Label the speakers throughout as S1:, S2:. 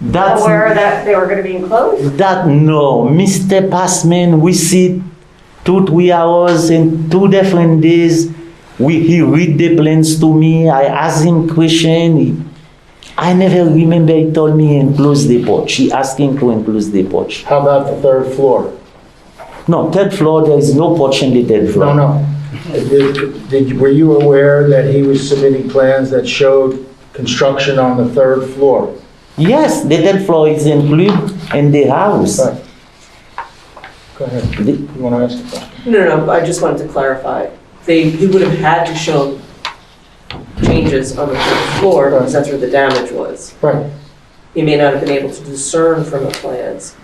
S1: That's
S2: aware that they were going to be enclosed?
S1: that no, Mr. Passman, we sit two three hours and two different days. We he read the plans to me. I ask him question. He- I never remember he told me enclose the porch. He asked him to enclose the porch.
S3: How about the third floor?
S1: No, third floor. There is no porch in the third floor.
S3: No, no. Did, did- were you aware that he was submitting plans that showed construction on the third floor?
S1: Yes, the third floor is included in the house.
S3: Right. Go ahead,
S1: The-
S3: you want to ask a question?
S4: No, no, no, I just wanted to clarify. They, he would have had to show changes on the first floor because that's where the damage was.
S3: Right,
S4: He may not have been able to discern from the plans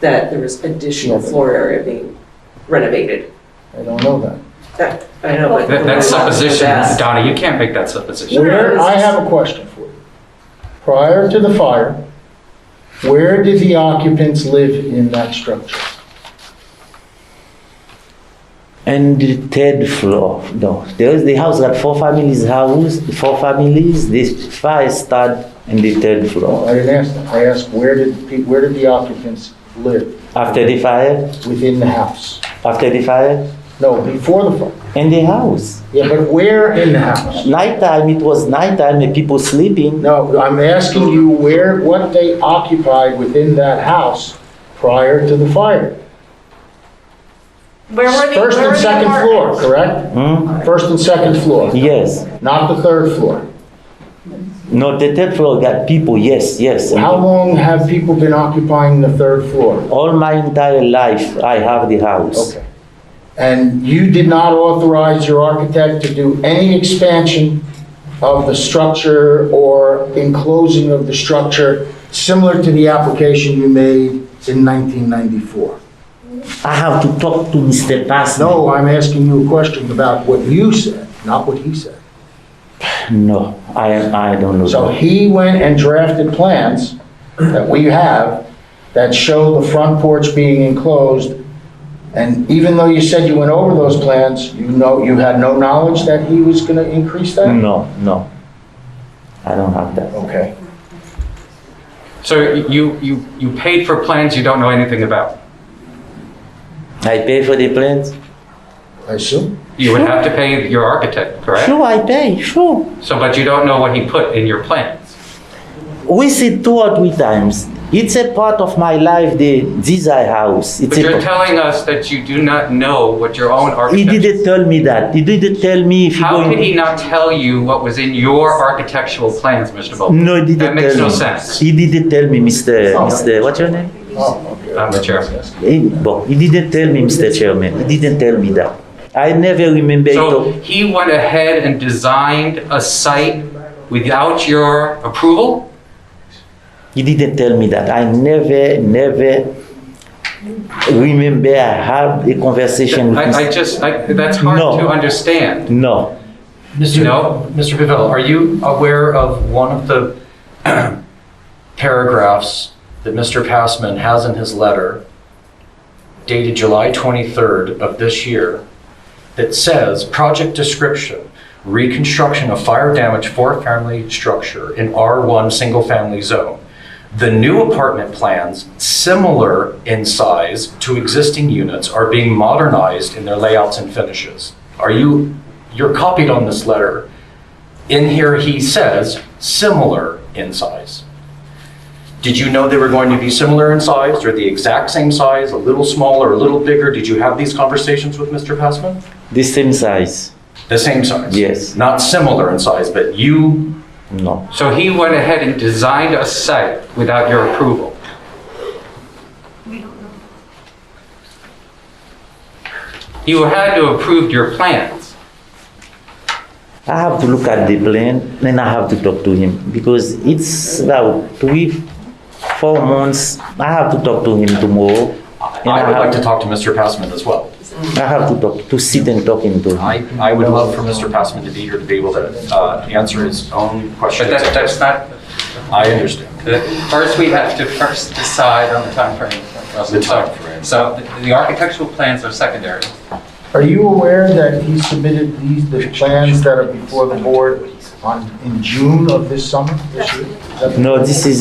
S4: that there was additional floor area being renovated.
S3: I don't know that.
S4: That, I know. but-
S5: That- That's supposition,
S4: Yes.
S5: Donna, you can't make that supposition.
S3: Where, I have a question for you. Prior to the fire, where did the occupants live in that structure?
S1: And the third floor, no, there is the house got four families house, four families, the fire start in the third
S3: Well,
S1: floor.
S3: I didn't ask that. I asked, where did, pe- where did the occupants live
S1: After the fire,
S3: within the house?
S1: after the fire,
S3: No, before the fire.
S1: in the house.
S3: Yeah, but where in the house?
S1: Nighttime, it was nighttime, and people sleeping.
S3: No, I'm asking you where, what they occupied within that house prior to the fire.
S2: Where were the,
S3: First
S2: where
S3: and
S2: were the
S3: second floor,
S2: apartments?
S3: correct?
S1: Hmm?
S3: First and second floor,
S1: Yes,
S3: not the third floor.
S1: no, the third floor got people, yes, yes.
S3: How long have people been occupying the third floor?
S1: All my entire life, I have the house.
S3: Okay. And you did not authorize your architect to do any expansion of the structure or enclosing of the structure similar to the application you made in 1994?
S1: I have to talk to Mr. Passman.
S3: No, I'm asking you a question about what you said, not what he said.
S1: No, I, I don't know.
S3: So he went and drafted plans that we have that show the front porch being enclosed. And even though you said you went over those plans, you know, you had no knowledge that he was gonna increase
S5: Mm.
S3: that?
S1: No, no. I don't have that.
S3: Okay.
S5: So you, you, you paid for plans you don't know anything about.
S1: I pay for the plans?
S3: I assume?
S5: You would have to pay your architect, correct?
S1: Sure, I pay, sure.
S5: So, but you don't know what he put in your plans.
S1: We see two or three times. It's a part of my life, the desire house. It's
S5: But
S1: a
S5: you're
S1: part-
S5: telling us that you do not know what your own
S1: he
S5: architect.
S1: didn't tell me that. He didn't tell me if he
S5: How
S1: going.
S5: could he not tell you what was in your architectural plans, Mr. Bolton?
S1: No, he didn't
S5: That makes
S1: tell
S5: no
S1: me.
S5: sense.
S1: He didn't tell me, Mr.
S3: Oh.
S1: Mr. What's your name?
S3: Oh, okay.
S5: I'm the chair.
S1: He, well, he didn't tell me, Mr. Chairman. He didn't tell me that. I never remember.
S5: So
S1: it.
S5: he went ahead and designed a site without your approval?
S1: He didn't tell me that. I never, never remember I had a conversation with Mr.
S5: I, I just, I, that's hard
S1: No.
S5: to understand.
S1: No.
S6: Mr.
S5: No.
S6: Mr. Pavel, are you aware of one of the paragraphs that Mr. Passman has in his letter dated July 23rd of this year that says, "Project description, reconstruction of fire-damaged four-family structure in R1 single-family zone. The new apartment plans, similar in size to existing units, are being modernized in their layouts and finishes." Are you, you're copied on this letter. In here, he says similar in size. Did you know they were going to be similar in size or the exact same size, a little smaller, a little bigger? Did you have these conversations with Mr. Passman?
S1: The same size?
S6: The same size?
S1: Yes.
S6: Not similar in size, but you,
S1: No.
S5: So he went ahead and designed a site without your approval. You had to approve your plans.
S1: I have to look at the plan and I have to talk to him because it's about three, four months. I have to talk to him tomorrow. And
S6: I would like to talk to Mr. Passman as well.
S1: I have to talk, to sit and talk him to him.
S6: I, I would love for Mr. Passman to be here to be able to uh, answer his own
S7: But
S6: questions.
S7: that, that's not,
S6: I understand.
S7: first we have to first decide on the timeframe. Russell.
S6: The timeframe.
S7: So the- the architectural plans are secondary.
S3: Are you aware that he submitted these, the plans that are before the board on, in June of this summer, this year? Is that-
S1: No, this is